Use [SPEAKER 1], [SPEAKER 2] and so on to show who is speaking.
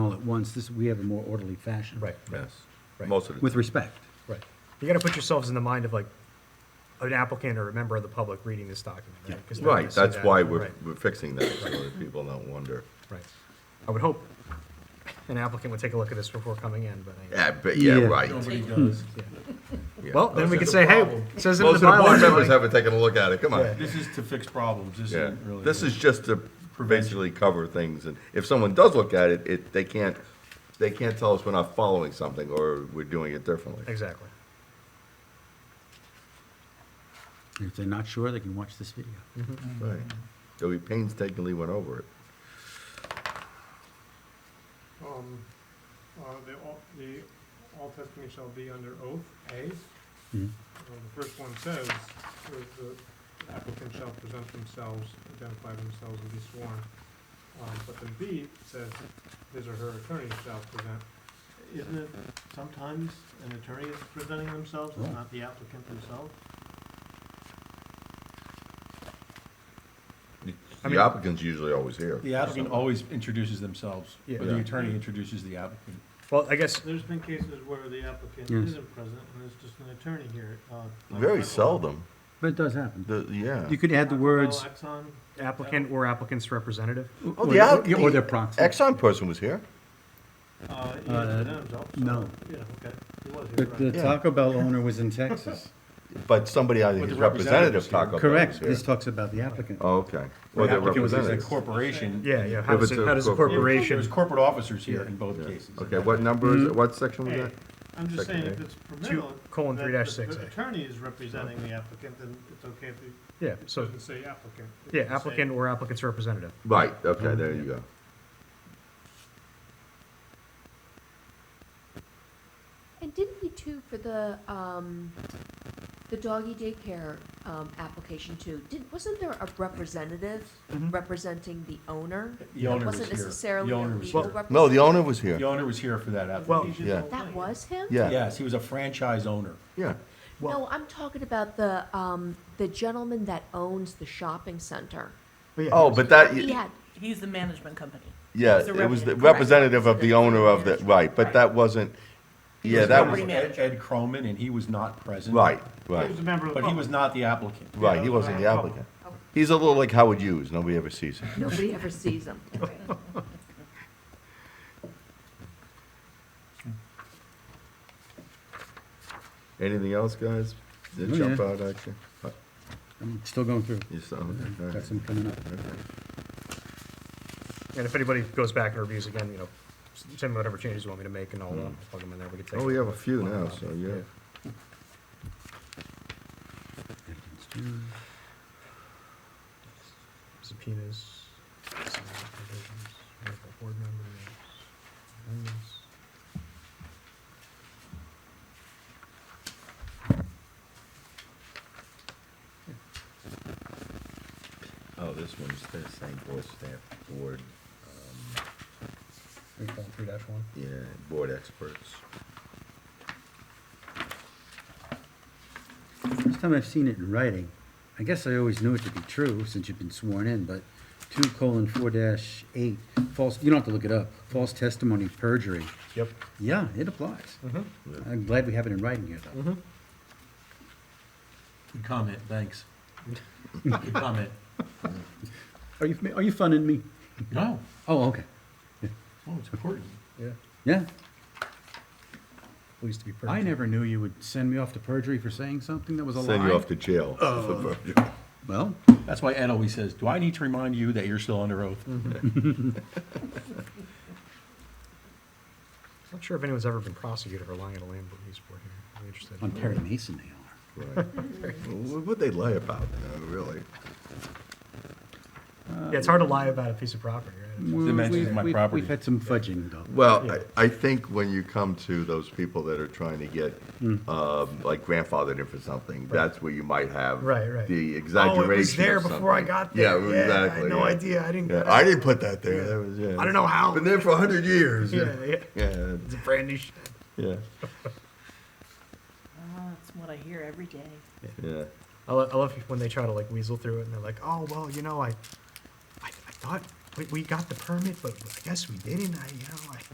[SPEAKER 1] at once, this, we have a more orderly fashion.
[SPEAKER 2] Right, right,
[SPEAKER 3] Yes,
[SPEAKER 2] Right.
[SPEAKER 3] most of the.
[SPEAKER 1] With
[SPEAKER 3] time.
[SPEAKER 1] respect.
[SPEAKER 2] right. You gotta put yourselves in the mind of like an applicant or a member of the public reading this document,
[SPEAKER 1] Yeah.
[SPEAKER 2] right? 'Cause they're gonna
[SPEAKER 3] Right,
[SPEAKER 2] see
[SPEAKER 3] that's
[SPEAKER 2] that,
[SPEAKER 3] why we're,
[SPEAKER 2] right,
[SPEAKER 3] we're fixing that, so that people don't wonder.
[SPEAKER 2] Right. I would hope an applicant would take a look at this before coming in, but. I-
[SPEAKER 3] Yeah, but, yeah,
[SPEAKER 1] Yeah.
[SPEAKER 3] right.
[SPEAKER 4] Nobody does.
[SPEAKER 2] yeah.
[SPEAKER 3] yeah.
[SPEAKER 2] Well, then we could
[SPEAKER 3] Most
[SPEAKER 2] say, hey,
[SPEAKER 4] problem.
[SPEAKER 2] it says it in
[SPEAKER 3] of
[SPEAKER 2] the
[SPEAKER 3] the board members
[SPEAKER 2] bylaws. like-
[SPEAKER 3] haven't taken a look at it, come on.
[SPEAKER 2] Yeah.
[SPEAKER 4] This is to fix problems, this
[SPEAKER 3] Yeah,
[SPEAKER 4] isn't really.
[SPEAKER 3] this is just to basically cover things, and if someone does look at it, it, they can't, they can't tell us we're not following something, or we're doing it differently.
[SPEAKER 2] Exactly.
[SPEAKER 1] If they're not sure, they can watch this video.
[SPEAKER 2] Mm-hmm.
[SPEAKER 3] Right. So we painstakingly went over it.
[SPEAKER 5] Um, uh, the, all- the, all testimony shall be under oath, A.
[SPEAKER 3] Mm-hmm.
[SPEAKER 1] Mhm.
[SPEAKER 5] Um, The first one says, uh, the applicant shall present themselves, identify themselves and be sworn. Um, but then B says, his or her attorney shall present.
[SPEAKER 6] Isn't it sometimes an attorney is presenting themselves,
[SPEAKER 1] Oh.
[SPEAKER 6] and not the applicant themselves?
[SPEAKER 2] mean-
[SPEAKER 3] The applicant's usually always here.
[SPEAKER 4] The applicant always introduces themselves,
[SPEAKER 2] Yeah.
[SPEAKER 4] or the
[SPEAKER 3] Yeah.
[SPEAKER 4] attorney introduces the applicant.
[SPEAKER 2] Well, I guess,
[SPEAKER 6] There's been cases where the applicant
[SPEAKER 1] Yes.
[SPEAKER 6] isn't present, and it's just an attorney here. uh, like
[SPEAKER 3] Very
[SPEAKER 6] Rockwell-
[SPEAKER 3] seldom,
[SPEAKER 1] But it does happen.
[SPEAKER 3] the, yeah.
[SPEAKER 1] You could add the words,
[SPEAKER 6] Rockwell, Exxon,
[SPEAKER 2] applicant or applicant's representative?
[SPEAKER 3] Oh,
[SPEAKER 1] or
[SPEAKER 3] the
[SPEAKER 1] their-
[SPEAKER 3] app-
[SPEAKER 1] or their
[SPEAKER 3] the
[SPEAKER 1] proxy.
[SPEAKER 3] Exxon person was here.
[SPEAKER 6] uh, he
[SPEAKER 1] Uh,
[SPEAKER 6] didn't present himself, so,
[SPEAKER 1] no.
[SPEAKER 6] Yeah, okay, he was here,
[SPEAKER 1] But the
[SPEAKER 6] right.
[SPEAKER 3] Yeah.
[SPEAKER 1] Taco Bell owner was in Texas.
[SPEAKER 3] But somebody, I think,
[SPEAKER 4] But the
[SPEAKER 3] his representative
[SPEAKER 4] representative's
[SPEAKER 3] Taco Bell
[SPEAKER 1] Correct,
[SPEAKER 3] was here.
[SPEAKER 1] this talks about the applicant.
[SPEAKER 3] Oh, okay. Or
[SPEAKER 4] The
[SPEAKER 3] their
[SPEAKER 4] applicant was a
[SPEAKER 3] representatives.
[SPEAKER 4] corporation.
[SPEAKER 2] Yeah, yeah. How
[SPEAKER 3] If
[SPEAKER 2] does,
[SPEAKER 3] it's
[SPEAKER 2] it-
[SPEAKER 3] a
[SPEAKER 2] how does a
[SPEAKER 3] corporate-
[SPEAKER 4] There was
[SPEAKER 2] corporation?
[SPEAKER 4] corporate officers here in both
[SPEAKER 3] Yeah.
[SPEAKER 4] cases.
[SPEAKER 3] Okay, what number is it, what section was
[SPEAKER 6] Hey,
[SPEAKER 3] that?
[SPEAKER 6] I'm just
[SPEAKER 3] Second
[SPEAKER 6] saying, if
[SPEAKER 3] A.
[SPEAKER 6] it's permitted.
[SPEAKER 2] colon
[SPEAKER 6] that
[SPEAKER 2] three
[SPEAKER 6] the-
[SPEAKER 2] dash six A.
[SPEAKER 6] The attorney is representing the applicant, then it's okay if he
[SPEAKER 2] Yeah, so,
[SPEAKER 5] Doesn't say applicant. It
[SPEAKER 2] yeah,
[SPEAKER 5] doesn't say-
[SPEAKER 2] applicant or applicant's representative.
[SPEAKER 3] Right, okay, there you go.
[SPEAKER 7] And didn't we too for the, um, the doggy daycare, um, application too? Did, wasn't there a representative representing the owner?
[SPEAKER 4] Mm-hmm. The owner was
[SPEAKER 7] Wasn't
[SPEAKER 4] here.
[SPEAKER 7] necessarily
[SPEAKER 4] The
[SPEAKER 7] a
[SPEAKER 4] owner was
[SPEAKER 7] legal
[SPEAKER 4] here.
[SPEAKER 7] representative?
[SPEAKER 3] No, the owner was
[SPEAKER 4] The
[SPEAKER 3] here.
[SPEAKER 4] owner was here for that
[SPEAKER 2] Well-
[SPEAKER 4] application.
[SPEAKER 6] he's just
[SPEAKER 3] Yeah.
[SPEAKER 6] all
[SPEAKER 7] That
[SPEAKER 6] thing.
[SPEAKER 7] was him?
[SPEAKER 3] Yeah,
[SPEAKER 4] Yes, he was a franchise owner.
[SPEAKER 3] yeah.
[SPEAKER 7] No, I'm talking about the, um, the gentleman that owns the shopping center.
[SPEAKER 3] Oh, but that,
[SPEAKER 7] He had,
[SPEAKER 8] He's the management company.
[SPEAKER 3] yeah,
[SPEAKER 8] He's the
[SPEAKER 3] it was the
[SPEAKER 8] representative.
[SPEAKER 3] representative of the owner of the,
[SPEAKER 8] Correct.
[SPEAKER 3] right, but that wasn't,
[SPEAKER 4] He
[SPEAKER 3] yeah,
[SPEAKER 4] was
[SPEAKER 3] that
[SPEAKER 4] a-
[SPEAKER 3] was,
[SPEAKER 8] Property
[SPEAKER 4] Ed
[SPEAKER 8] manager.
[SPEAKER 4] Ed Croman, and he was not present.
[SPEAKER 3] right,
[SPEAKER 6] He
[SPEAKER 3] right,
[SPEAKER 6] was a member of the
[SPEAKER 4] But he was
[SPEAKER 6] public.
[SPEAKER 4] not the applicant.
[SPEAKER 3] right, he wasn't the applicant. He's a little like Howard Hughes, nobody ever sees him.
[SPEAKER 7] nobody ever sees him.
[SPEAKER 3] Anything else, guys? Did
[SPEAKER 1] Oh,
[SPEAKER 3] it jump
[SPEAKER 1] yeah.
[SPEAKER 3] out at you? Uh,
[SPEAKER 1] I'm still going through.
[SPEAKER 3] You saw, Oh, okay, all right.
[SPEAKER 1] Got some coming up.
[SPEAKER 2] And if anybody goes back and reviews again, you know, s- send me whatever changes you want me to make and I'll uh, plug them in there. We can take.
[SPEAKER 3] Oh, we have a few now, so yeah.
[SPEAKER 2] Subpoenas. signing applications, medical board members, amendments.
[SPEAKER 3] Oh, this one's the St. Paul Staff Board,
[SPEAKER 2] Three colon three dash one.
[SPEAKER 3] yeah, board experts.
[SPEAKER 1] First time I've seen it in writing. I guess I always knew it to be true since you've been sworn in, but two colon four dash eight, false, you don't have to look it up, false testimony, perjury.
[SPEAKER 2] Yep.
[SPEAKER 1] Yeah, it applies.
[SPEAKER 3] Mm-hmm.
[SPEAKER 1] I'm glad we have it in writing here, though.
[SPEAKER 4] Good comment, thanks. Good comment.
[SPEAKER 1] Are you, are you funning me?
[SPEAKER 4] No,
[SPEAKER 1] Oh, okay.
[SPEAKER 4] oh, it's important.
[SPEAKER 2] Yeah.
[SPEAKER 1] Yeah.
[SPEAKER 2] Pleased to be.
[SPEAKER 1] I
[SPEAKER 2] perfect.
[SPEAKER 1] never knew you would send me off to perjury for saying something that was a lie.
[SPEAKER 3] Send you off to jail.
[SPEAKER 2] Oh.
[SPEAKER 3] for perjury.
[SPEAKER 1] Well,
[SPEAKER 4] That's why Ed always says, do I need to remind you that you're still under oath?
[SPEAKER 2] Not sure if anyone's ever been prosecuted for lying at a land release board here. I'm interested.
[SPEAKER 1] on Perry Mason they are.
[SPEAKER 3] Right. What would they lie about, uh, really?
[SPEAKER 2] Yeah, it's hard to lie about a piece of property, right?
[SPEAKER 1] Well,
[SPEAKER 4] dimensions of
[SPEAKER 1] we've-
[SPEAKER 4] my
[SPEAKER 1] we've-
[SPEAKER 4] property.
[SPEAKER 1] We've had some fudging, though.
[SPEAKER 3] Well, I, I think when you come to those people that are trying to get,
[SPEAKER 2] Mm.
[SPEAKER 3] um, like grandfathered in for something, that's where you might have.
[SPEAKER 2] Right, right.
[SPEAKER 3] The
[SPEAKER 2] Oh,
[SPEAKER 3] exaggeration
[SPEAKER 2] it was there
[SPEAKER 3] of
[SPEAKER 2] before I
[SPEAKER 3] something.
[SPEAKER 2] got there.
[SPEAKER 3] Yeah,
[SPEAKER 2] Yeah, I had
[SPEAKER 3] exactly.
[SPEAKER 2] no
[SPEAKER 3] yeah.
[SPEAKER 2] idea. I didn't
[SPEAKER 3] Yeah,
[SPEAKER 2] get
[SPEAKER 3] I
[SPEAKER 2] it.
[SPEAKER 3] didn't put that there, that was, yeah.
[SPEAKER 2] I don't know how.
[SPEAKER 3] Been there for a hundred years,
[SPEAKER 2] Yeah,
[SPEAKER 3] yeah,
[SPEAKER 2] yeah.
[SPEAKER 3] yeah,
[SPEAKER 2] It's a brand new shed.
[SPEAKER 3] yeah,
[SPEAKER 8] Ah, that's what I hear every day.
[SPEAKER 3] yeah.
[SPEAKER 2] I, lo- I love when they try to like weasel through it and they're like, oh, well, you know, I, I, I thought we, we got the permit, but I guess we didn't. I, you know, I.